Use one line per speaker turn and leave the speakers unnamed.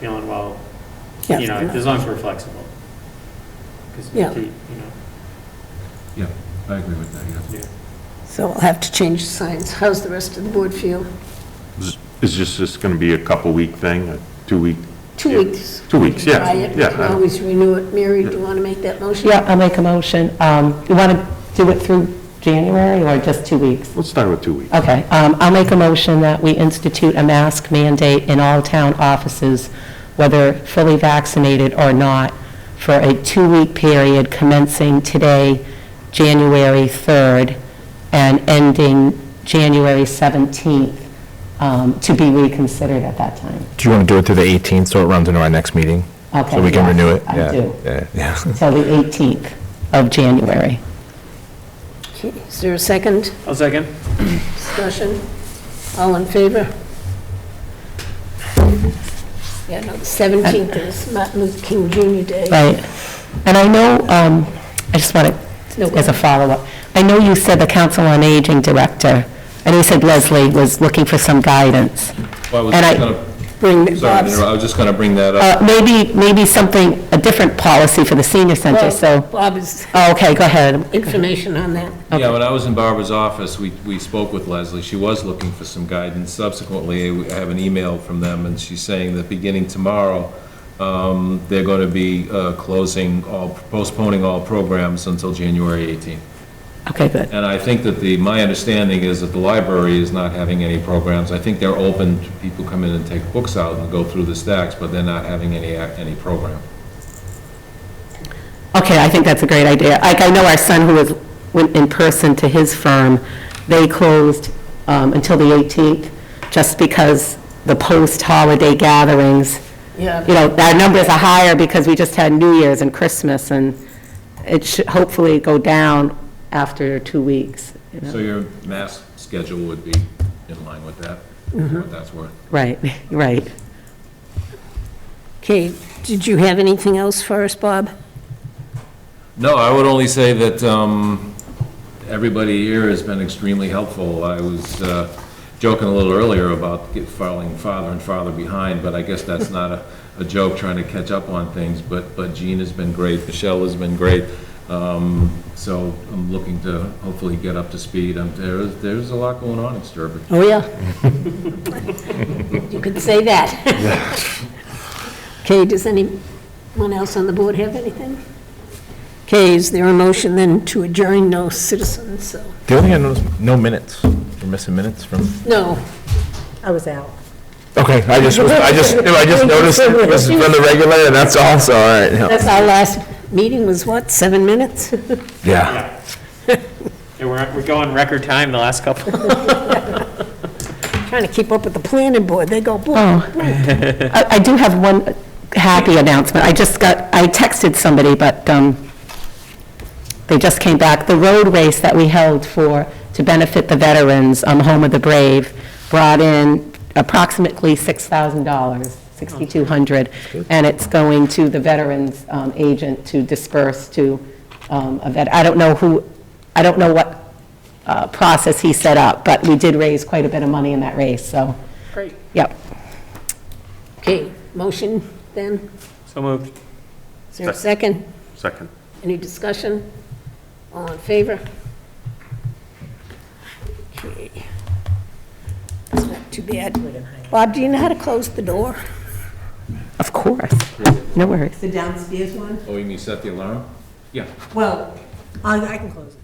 feeling, well,
Yeah.
you know, as long as we're flexible. 'Cause
Yeah.
the- You know,
Yeah, I agree with that, yeah.
yeah.
So I'll have to change the signs. How's the rest of the board feel?
Is is this just going to be a couple-week thing, a two-week?
Two weeks.
Two weeks, yeah,
Try it.
yeah. uh,
Can Always renew it. Mary, do you want to make that motion?
Yeah, I'll make a motion. Um, You want to do it through January or just two weeks?
Let's start with two weeks.
Okay, um, I'll make a motion that we institute a mask mandate in all town offices, whether fully vaccinated or not, for a two-week period commencing today, January 3rd, and ending January 17th, um, to be reconsidered at that time.
Do you want to do it through the 18th, so it runs into our next meeting?
Okay,
So we can
yes,
renew it?
I
Yeah,
do.
yeah, Yeah.
Till the 18th of January.
Okay, Is there a second
I'll second.
discussion? All in favor? Yeah, no, the 17th is Martin Luther King Jr. Day.
Right. And I know, um, I just want
No
to, as a follow-up, I know you said the Council on Aging Director, and you said Leslie was looking for some guidance.
Well, I was
And I-
just gonna,
Bring the
sorry, to
Bob's-
interrupt, I was just gonna bring that up.
Uh, Maybe, maybe something, a different policy for the senior center, so,
Bob's
oh, okay, go ahead.
information on that.
Yeah, when I was in Barbara's office, we, we spoke with Leslie, she was looking for some guidance. Subsequently, we- I have an email from them, and she's saying that beginning tomorrow, um, they're gonna be uh, closing all, postponing all programs until January 18th.
Okay, good.
And I think that the, my understanding is that the library is not having any programs. I think they're open to people come in and take books out and go through the stacks, but they're not having any, ac- any program.
Okay, I think that's a great idea. Like, I know our son who was, went in person to his firm, they closed um, until the 18th, just because the post-holiday gatherings,
Yeah.
you know, our numbers are higher because we just had New Year's and Christmas, and it should hopefully go down after two weeks. you know.
So your mass schedule would be in line with that, what that's worth.
Right, right.
Okay, did you have anything else for us, Bob?
No, I would only say that um, everybody here has been extremely helpful. I was uh, joking a little earlier about get- falling farther and farther behind, but I guess that's not a- a joke, trying to catch up on things. But but Jean has been great, Michelle has been great. Um, So I'm looking to hopefully get up to speed. Um, there- There's a lot going on in Sturbridge.
Oh, yeah. You could say that. Okay, does anyone else on the board have anything? Okay, is there a motion then to adjourn? No citizens, so,
The only thing I noticed, no minutes. We're missing minutes from,
no.
I was out.
okay, I just, was- I just, I just noticed it was from the regulator, that's all, so, all right. yeah.
That's our last meeting was what, seven minutes?
Yeah.
And we're, we're going record time the last couple.
Trying to keep up with the planning board, they go, boom.
I I do have one happy announcement. I just got, I texted somebody, but um, they just came back. The road race that we held for, to benefit the veterans, um, Home of the Brave, brought in approximately $6,000, $6,200, and it's going to the veterans um, agent to disperse to um, a vet. I don't know who, I don't know what uh, process he set up, but we did raise quite a bit of money in that race, so,
Great.
yep.
Okay, motion then?
So moved.
Is there a second?
Second.
Any discussion? All in favor? Okay. It's not too bad. Bob, do you know how to close the door?
Of course. No worries.
The downstairs one?
Oh, you mean set the alarm? Yeah.
Well, I I can close it.